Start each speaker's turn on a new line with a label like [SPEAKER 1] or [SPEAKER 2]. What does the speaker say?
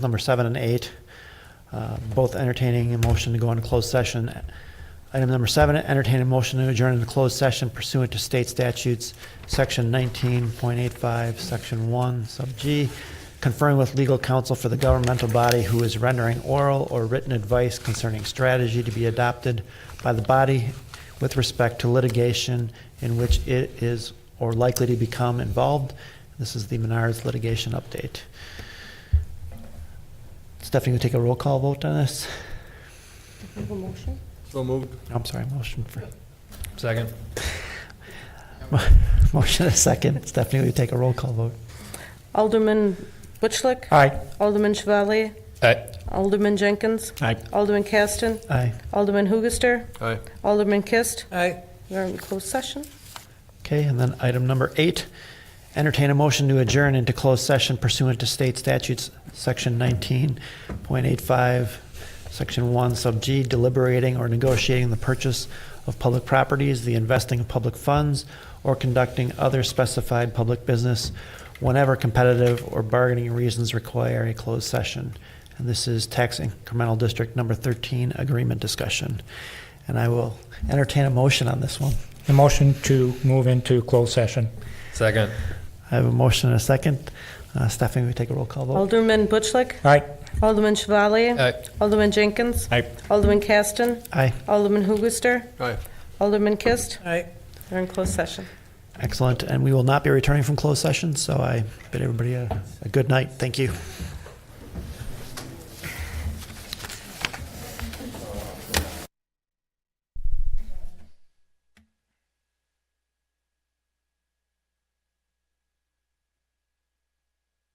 [SPEAKER 1] number seven and eight, uh, both entertaining a motion to go into closed session. Item number seven, entertain a motion to adjourn into closed session pursuant to state statutes, section 19.85, section 1, sub G, conferring with legal counsel for the governmental body who is rendering oral or written advice concerning strategy to be adopted by the body with respect to litigation in which it is or likely to become involved. This is the Menards litigation update. Stephanie, you take a roll call vote on this?
[SPEAKER 2] Have a motion?
[SPEAKER 3] So moved.
[SPEAKER 1] I'm sorry, motion for,
[SPEAKER 3] Second.
[SPEAKER 1] motion a second. Stephanie, will you take a roll call vote?
[SPEAKER 2] Alderman Butchlick?
[SPEAKER 1] Aye.
[SPEAKER 2] Alderman Chevalier?
[SPEAKER 3] Aye.
[SPEAKER 2] Alderman Jenkins?
[SPEAKER 1] Aye.
[SPEAKER 2] Alderman Caston?
[SPEAKER 1] Aye.
[SPEAKER 2] Alderman Hoogaster?
[SPEAKER 3] Aye.
[SPEAKER 2] Alderman Kist?
[SPEAKER 3] Aye.
[SPEAKER 2] We're in closed session.
[SPEAKER 1] Okay, and then item number eight, entertain a motion to adjourn into closed session pursuant to state statutes, section 19.85, section 1, sub G, deliberating or negotiating the purchase of public properties, the investing of public funds, or conducting other specified public business whenever competitive or bargaining reasons require a closed session. And this is tax incremental district number 13 agreement discussion. And I will entertain a motion on this one.
[SPEAKER 4] The motion to move into closed session.
[SPEAKER 3] Second.
[SPEAKER 1] I have a motion and a second. Uh, Stephanie, we take a roll call vote.
[SPEAKER 2] Alderman Butchlick?
[SPEAKER 4] Aye.
[SPEAKER 2] Alderman Chevalier?
[SPEAKER 3] Aye.
[SPEAKER 2] Alderman Jenkins?
[SPEAKER 4] Aye.
[SPEAKER 2] Alderman Caston?
[SPEAKER 1] Aye.
[SPEAKER 2] Alderman Hoogaster?
[SPEAKER 3] Aye.
[SPEAKER 2] Alderman Kist?
[SPEAKER 3] Aye.
[SPEAKER 2] We're in closed session.
[SPEAKER 1] Excellent. And we will not be returning from closed session, so I bid everybody a, a good night. Thank you.